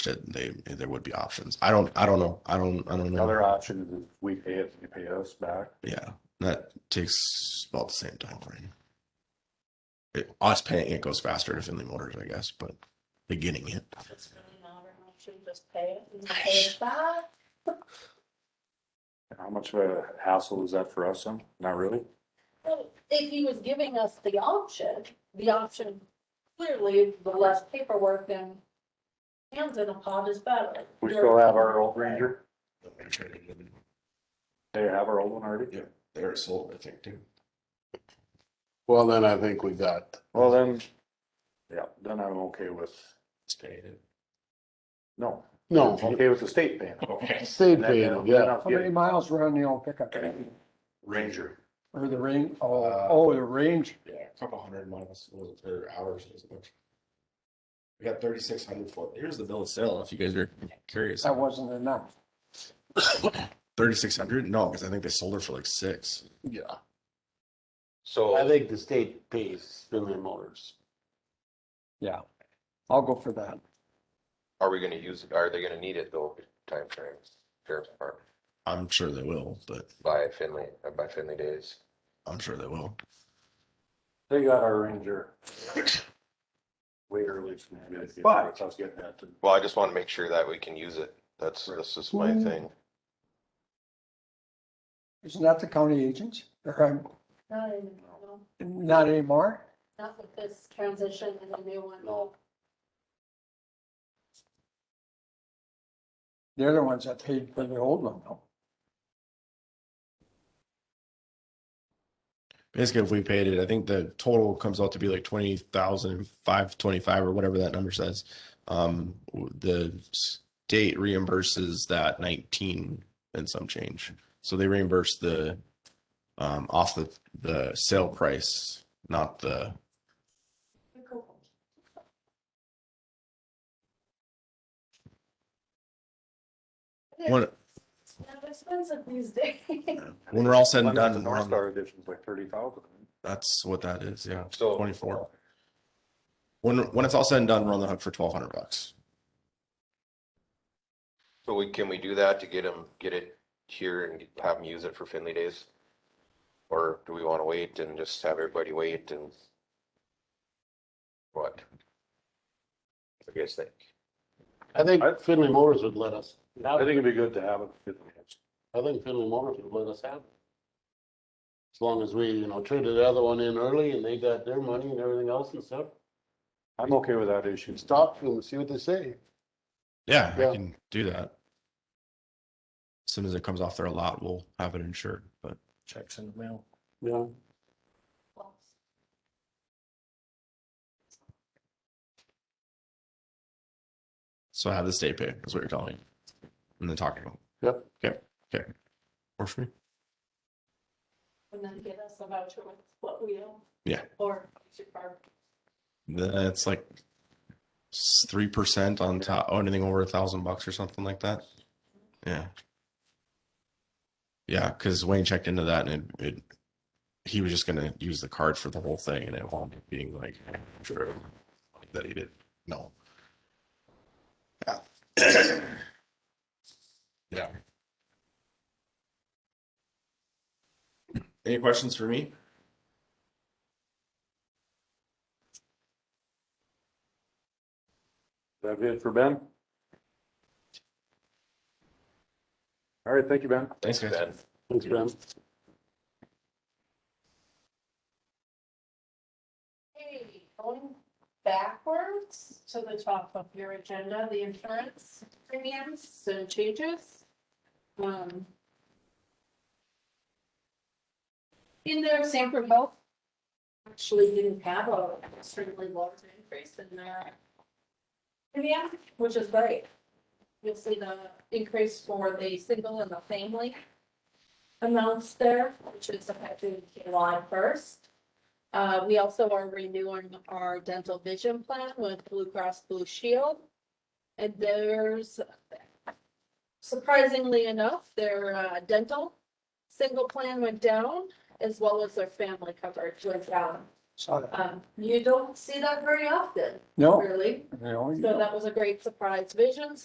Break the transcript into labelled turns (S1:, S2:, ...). S1: approached it, they, there would be options. I don't, I don't know. I don't, I don't know.
S2: Another option is if we pay it, they pay us back.
S1: Yeah, that takes about the same time frame. It, us paying it goes faster to Finley Motors, I guess, but beginning it.
S3: It's really not an option, just pay it and pay it back.
S2: How much of a hassle is that for us? Then? Not really.
S3: Well, If he was giving us the option, the option, clearly, the less paperwork and hands in a pot is better.
S2: We still have our old Ranger. They have our old one already.
S1: Yeah. They're sold, I think, too.
S4: Well, then I think we got,
S2: Well, then, yeah, then I'm okay with, no,
S4: no,
S2: I'm okay with the state paying. it.
S1: Okay.
S4: Oh. state
S2: That-
S4: paid,
S2: that'll-
S4: yeah.
S2: that'll
S5: How
S2: get
S5: many miles were on the old pickup
S1: Ranger,
S5: or the range?
S1: Uh,
S5: Oh, oh, the range.
S1: yeah, a couple hundred miles or hours. is much. We got thirty-six hundred for, here's the bill of sale if you guys are curious.
S5: That wasn't enough.
S1: Thirty-six hundred? No, because I think they sold her for like six.
S4: Yeah. I
S6: So
S4: think the state pays Finley Motors.
S5: Yeah. I'll go for that.
S6: are we gonna use, are they gonna need it though, timeframes, sheriff's department,
S1: I'm sure they will, but
S6: by Finley, uh, by Finley days?
S1: I'm sure they will.
S2: They got our Ranger. Way early.
S5: But-
S2: I was getting that. to-
S6: Well, I just wanna make sure that we can use it. That's, that's just my thing.
S5: Isn't that the county agents? Or um,
S3: Not even, no,
S5: not anymore?
S3: Not with this transition and the new one.
S2: No.
S5: They're the ones that paid for the old one though.
S1: Basically, if we paid it, I think the total comes out to be like twenty thousand five twenty-five or whatever that number says. Um, w- the state reimburses that nineteen and some change. So they reimburse the um off the the sale price, not the when
S3: Not expensive these days.
S1: when we're all said
S2: Why
S1: and
S2: not The
S1: done.
S2: North
S1: um,
S2: Star edition's like thirty thousand.
S1: That's what that is. Yeah,
S6: So-
S1: twenty-four. When when it's all said and done, we're on the hook for twelve hundred bucks.
S6: So we, can we do that to get them, get it here and have them use it for Finley days? Or do we wanna wait and just have everybody wait and? What? What do you guys think?
S4: I think
S2: I-
S4: Finley Motors would let us,
S2: I think it'd be good to have it.
S4: I think Finley Motors would let us have it. As long as we, you know, traded the other one in early and they got their money and everything else and stuff.
S2: I'm okay with that issue.
S4: Stop and see what they say.
S1: Yeah, I
S4: Yeah.
S1: can do that. As soon as it comes off their lot, we'll have it insured, but
S2: Checks in the mail.
S4: Yeah.
S1: so have the state pay is what you're telling me. And then talking about.
S4: Yep.
S1: Okay, okay. Works for me.
S3: And then get us a voucher with what we own.
S1: Yeah.
S3: Or we should borrow.
S1: That's like three percent on top, oh, anything over a thousand bucks or something like that. Yeah. Yeah, because Wayne checked into that and it, it, he was just gonna use the card for the whole thing and it wound up being like, sure, that he did, no. Yeah. Yeah. Any questions for me?
S2: That it for Ben? All right, thank you, Ben.
S1: Thanks, guys.
S6: Ben?
S4: Thanks, Ben.
S3: Hey, going backwards to the top of your agenda, the insurance premiums and changes. Um. In there, Sanford Health actually didn't have a extremely large increase in their premium, which is great. You'll see the increase for the single and the family amounts there, which is effective July first. Uh, we also are renewing our dental vision plan with Blue Cross Blue Shield. And there's surprisingly enough, their uh, dental single plan went down as well as their family coverage went down.
S5: Saw that.
S3: Um, you don't see that very often,
S5: No,
S3: really.
S5: no, you
S3: So
S5: don't.
S3: that was a great surprise. Visions